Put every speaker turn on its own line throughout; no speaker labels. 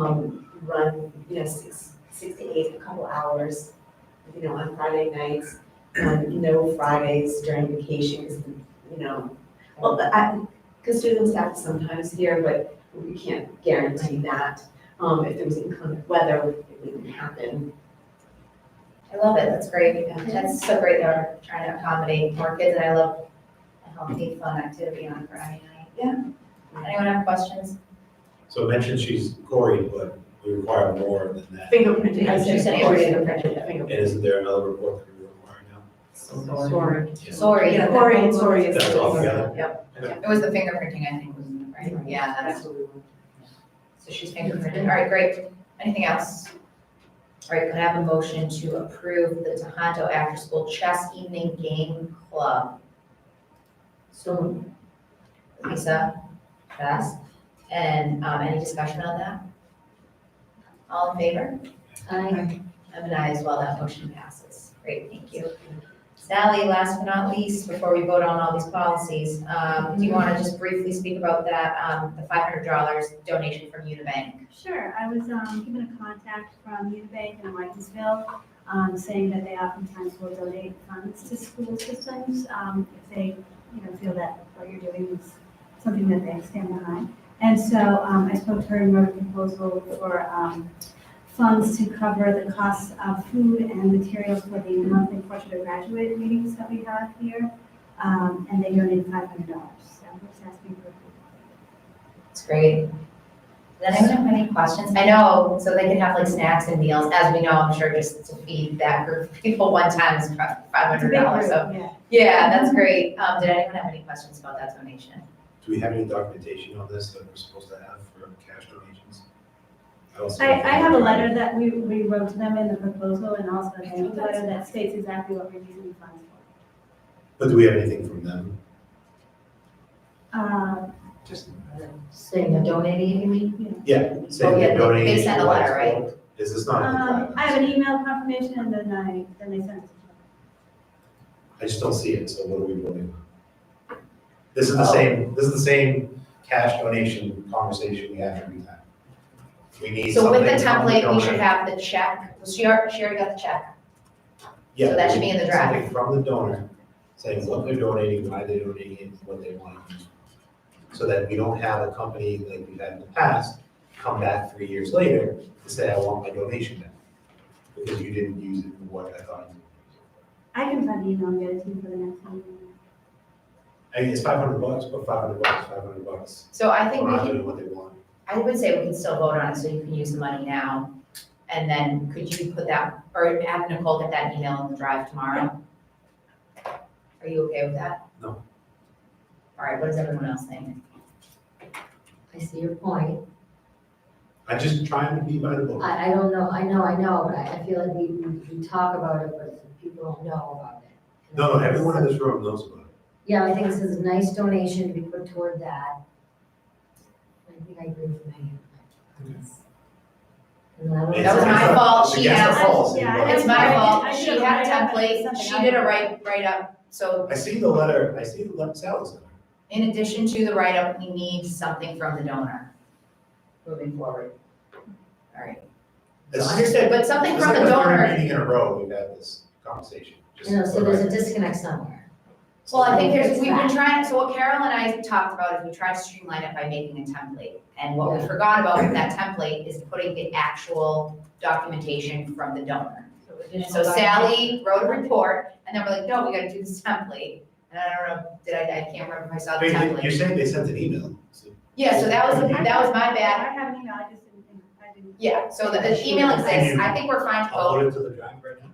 um, run, you know, six, six to eight, a couple hours, you know, on Friday nights, and no Fridays during vacation, 'cause, you know. Well, but I, because students have sometimes here, but we can't guarantee that. Um, if there was inclement weather, it wouldn't happen.
I love it, that's great, that's so great that we're trying to accommodate more kids, and I love a healthy, fun activity on Friday night.
Yeah.
Anyone have questions?
So it mentions she's Cory, but we require more than that.
Fingerprinting.
I was just saying,
Fingerprinting,
And
fingerprinting.
isn't there another report that we require now?
Sorry.
Sorry.
Yeah, Cory and Sorry is.
That's all together.
Yep,
It was the fingerprinting, I think, was, in the- right, yeah, that's,
that's what we want.
so she's fingerprinted, all right, great, anything else? All right, could I have a motion to approve the Tohoto After School Chess Evening Game Club?
So,
Lisa, Bess, and, um, any discussion on that? All in favor?
I,
I'm an aye as well, that motion passes. Great, thank you. Sally, last but not least, before we vote on all these policies, um, do you want to just briefly speak about that, um, the five hundred dollars donation from Unibank?
Sure, I was um, given a contact from Unibank in Whitensville, um, saying that they oftentimes will donate funds to school systems, um, if they, you know, feel that what you're doing is something that they stand behind. And so, um, I spoke to her and wrote a proposal for, um, funds to cover the costs of food and materials for the monthly portrait of graduate meetings that we have here, um, and they donated five hundred dollars, so we're just asking for
It's great. Does anyone have any questions? I know, so they can have like snacks and meals, as we know, I'm sure just to feed that group of people one time is five hundred dollars, so.
Yeah.
Yeah, that's great. Um, did anyone have any questions about that donation?
Do we have any documentation on this that we're supposed to have for cash donations? don't see
I,
anything.
I have a letter that we, we wrote to them in the proposal and also a thank you letter that states exactly what we're using the funds for.
But do we have anything from them?
Um,
Just,
Saying they're donating, you mean?
yeah,
Oh,
saying
yeah,
they're
they-
donating.
they sent a letter, right?
Is this not?
um, I have an email confirmation and then I, then they sent it to
I just don't see it, so what are we voting on? This is
Oh.
the same, this is the same cash donation conversation we have every time. We need
So
something
with the
from the
template, we should
donor.
have the check. Well, She already, she already got the check.
Yeah,
So that should be in the draft.
Something from the donor, saying what they're donating, why they're donating it, what they want. So that we don't have a company like we've had in the past, come back three years later and say, I want my donation back. Because you didn't use it for what I thought you would.
I can find the email and get it to you for the next meeting.
I mean, it's five hundred bucks, but five hundred bucks, five hundred bucks.
So I think
We're
we
not
can,
doing what they want.
I would say we can still vote on it, so you can use the money now. And then could you put that, or have Nicole get that email in the drive tomorrow? Are you okay with that?
No.
All right, what does everyone else think?
I see your point.
I'm just trying to be by the book.
I, I don't know, I know, I know, but I, I feel like we, we we talk about it, but people don't know about it.
No, no, everyone in this room knows about it.
Yeah, I think this is a nice donation to be put toward that. I think I agree with Megan. And I don't-
That was my fault. She
Against the
asked-
policy,
yeah,
but-
I
It's my
I
fault.
did
She
a
had a
write-up and
template. She
something
did a
I-
write, write-up. So
I see the letter, I see the letter, Sal's letter.
in addition to the write-up, we need something from the donor moving forward. All right. So
It's-
understood, but something
It's
from
like
the
the third
donor,
meeting in a row we've had this conversation. just-
You know, so there's a disconnect somewhere.
well, I think there's,
It's
we've been
that.
trying, so what Carol and I talked about is we tried to streamline it by making a template. And what we forgot about with that template is putting the actual documentation from the donor. So Sally wrote a report, and then we're like, no, we gotta do this template. And I don't know, did I, I can't remember if I saw the
Wait,
template.
You're saying they sent an email, so
Yeah, so that was, that was my bad.
I have an email, I just didn't, I didn't,
Yeah, so the- the email exists. I think we're fine to vote.
upload it to the drive right now?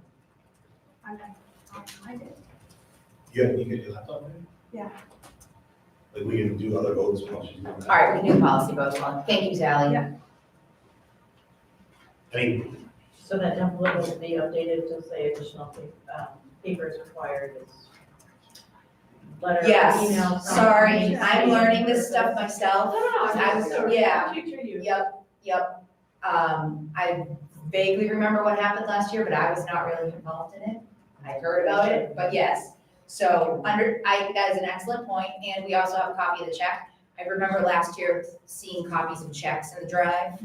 I'm not, I'll find it.
You have, you got your laptop there?
Yeah.
Like, we can do other votes while she's doing that.
All right, we can do policy votes on. Thank you, Sally.
Yeah.
I mean,
So that template will be updated to say additional pa- um, papers required is letter, email.
Yes, sorry,
Yeah.
I'm learning this stuff myself.
No,
I was- yeah.
Future you.
Yep, yep. Um, I vaguely remember what happened last year, but I was not really involved in it. I heard about it, but yes. So under, I, that is an excellent point, and we also have a copy of the check. I remember last year seeing copies of checks in the drive.